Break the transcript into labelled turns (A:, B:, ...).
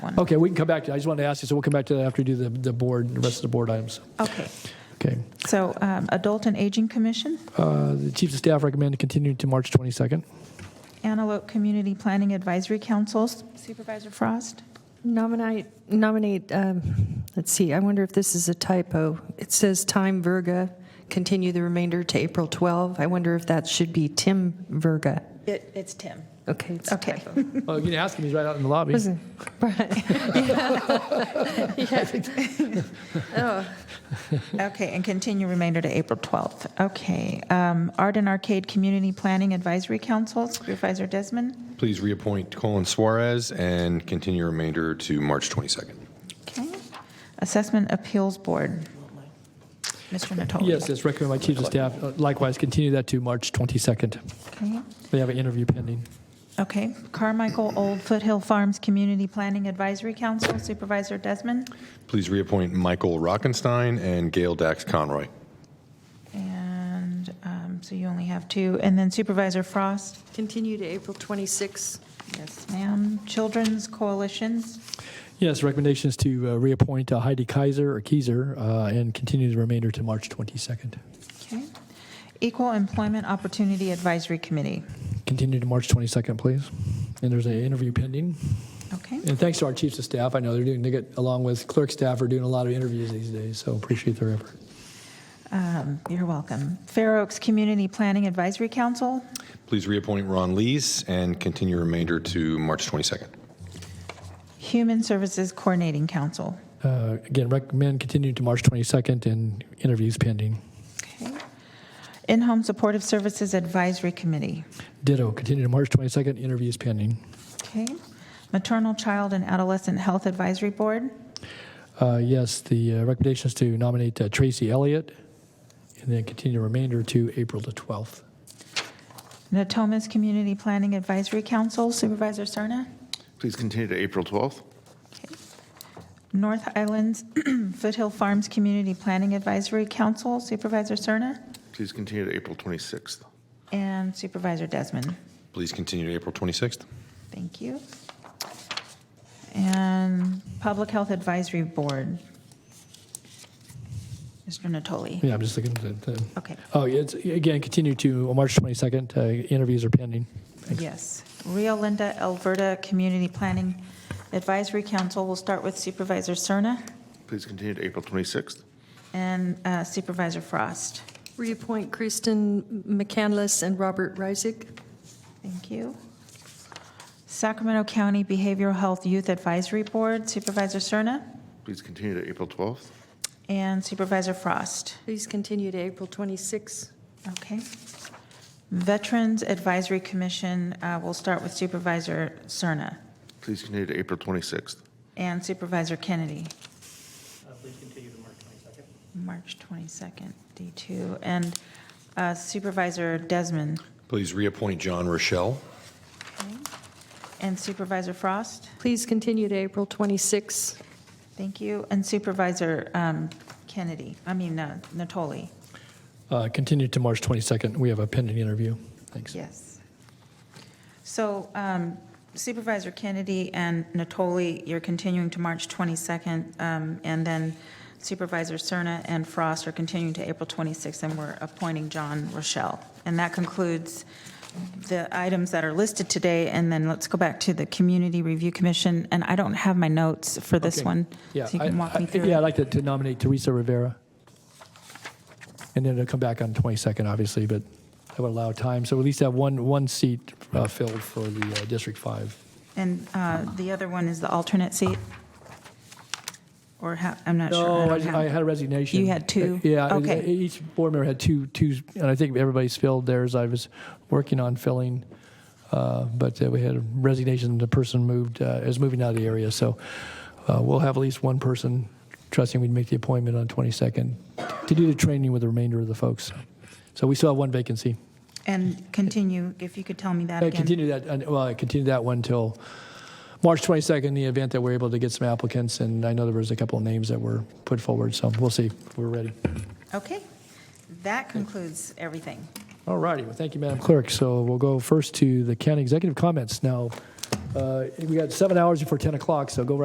A: one.
B: Okay, we can come back to, I just wanted to ask you, so we'll come back to that after we do the, the board, the rest of the board items.
A: Okay,
B: Okay.
A: so um, Adult and Aging Commission,
B: Uh, The Chiefs of Staff recommend to continue to March 22nd.
A: Antelope Community Planning Advisory Councils, Supervisor Frost.
C: Nominate, nominate, um, let's see, I wonder if this is a typo. It says time Verga, continue the remainder to April 12. I wonder if that should be Tim Verga.
A: It's Tim.
C: Okay. it's-
A: Okay,
B: Oh, you can ask him, he's right out in the lobby.
C: Wasn't- Yeah. Yeah. Oh,
A: okay, and continue remainder to April 12th. Okay, um, Art and Arcade Community Planning Advisory Council, Supervisor Desmond.
D: Please reappoint Colin Suarez and continue remainder to March 22nd.
A: Okay. Assessment Appeals Board, Mr. Natoli.
B: Yes, it's recommended by Chiefs of Staff. Uh, Likewise, continue that to March 22nd.
A: Okay.
B: They have an interview pending.
A: Okay, Carmichael Old Foothill Farms Community Planning Advisory Council, Supervisor Desmond.
D: Please reappoint Michael Rockenstein and Gail Dax Conroy.
A: And um, so you only have two. And then Supervisor Frost.
C: Continue to April 26.
A: Yes, ma'am. Children's Coalitions.
B: Yes, recommendation is to uh, reappoint uh, Heidi Kaiser or Keiser uh, and continue the remainder to March 22nd.
A: Okay. Equal Employment Opportunity Advisory Committee.
B: Continue to March 22nd, please. And there's an interview pending.
A: Okay.
B: And thanks to our Chiefs of Staff, I know they're doing, they get, along with clerk staff, are doing a lot of interviews these days, so appreciate their effort.
A: Um, You're welcome. Fair Oaks Community Planning Advisory Council.
D: Please reappoint Ron Lees and continue remainder to March 22nd.
A: Human Services Coordinating Council.
B: Uh, Again, recommend continue to March 22nd and interviews pending.
A: Okay. In-Home Supportive Services Advisory Committee.
B: Ditto, continue to March 22nd, interviews pending.
A: Okay. Maternal, Child, and Adolescent Health Advisory Board.
B: Uh, Yes, the uh, recommendation is to nominate uh, Tracy Elliott and then continue the remainder to April the 12th.
A: Natomas Community Planning Advisory Council, Supervisor Serna.
E: Please continue to April 12th.
A: North Islands Foothill Farms Community Planning Advisory Council, Supervisor Serna.
E: Please continue to April 26th.
A: And Supervisor Desmond.
D: Please continue to April 26th.
A: Thank you. And Public Health Advisory Board. Mr. Natoli.
B: Yeah, I'm just looking at the,
A: Okay,
B: oh, yeah, it's, again, continue to March 22nd, uh, interviews are pending.
A: yes. Rio Linda Alberta Community Planning Advisory Council, we'll start with Supervisor Serna
E: Please continue to April 26th.
A: and uh, Supervisor Frost.
C: Reappoint Kristen McCandless and Robert Reisig.
A: Thank you. Sacramento County Behavioral Health Youth Advisory Board Supervisor Serna
E: Please continue to April 12th.
A: and Supervisor Frost.
C: Please continue to April 26.
A: Okay. Veterans Advisory Commission, uh, we'll start with Supervisor Serna
E: Please continue to April 26th.
A: and Supervisor Kennedy. Please continue to March 22nd. March 22nd, D2. And uh, Supervisor Desmond
D: Please reappoint John Rochelle.
A: and Supervisor Frost.
C: Please continue to April 26.
A: Thank you. And Supervisor um, Kennedy, I mean, uh, Natoli.
B: Uh, Continue to March 22nd, we have a pending interview. Thanks.
A: Yes. So um, Supervisor Kennedy and Natoli, you're continuing to March 22nd, um, and then Supervisor Cerna and Frost are continuing to April 26th, and we're appointing John Rochelle. And that concludes the items that are listed today, and then let's go back to the Community Review Commission, and I don't have my notes for this
B: Okay.
A: one.
B: Yeah,
A: So you
B: I-
A: can walk
B: I-
A: me through.
B: Yeah, I'd like to- to nominate Teresa Rivera. And then it'll come back on 22nd, obviously, but that would allow time. So at least have one, one seat uh, filled for the uh, District 5.
A: And uh, the other one is the alternate seat? Or how, I'm not sure.
B: No,
A: don't
B: I
A: have-
B: I had a resignation.
A: You had two?
B: Yeah.
A: Okay.
B: e- Each board member had two, two, and I think everybody's filled theirs. I was working on filling, uh, but uh, we had a resignation. The person moved, uh, is moving out of the area, so uh, we'll have at least one person, trusting we'd make the appointment on 22nd, to do the training with the remainder of the folks. So we still have one vacancy.
A: And continue, if you could tell me that
B: I
A: again.
B: Uh, continue that, and- well, I continue that one till March 22nd, in the event that we're able to get some applicants, and I know there was a couple of names that were put forward, so we'll see if we're ready.
A: Okay. That concludes everything.
B: All righty, well, thank you, Madam Clerk. So we'll go first to the county executive comments. Now, uh, we got seven hours before 10 o'clock, so go right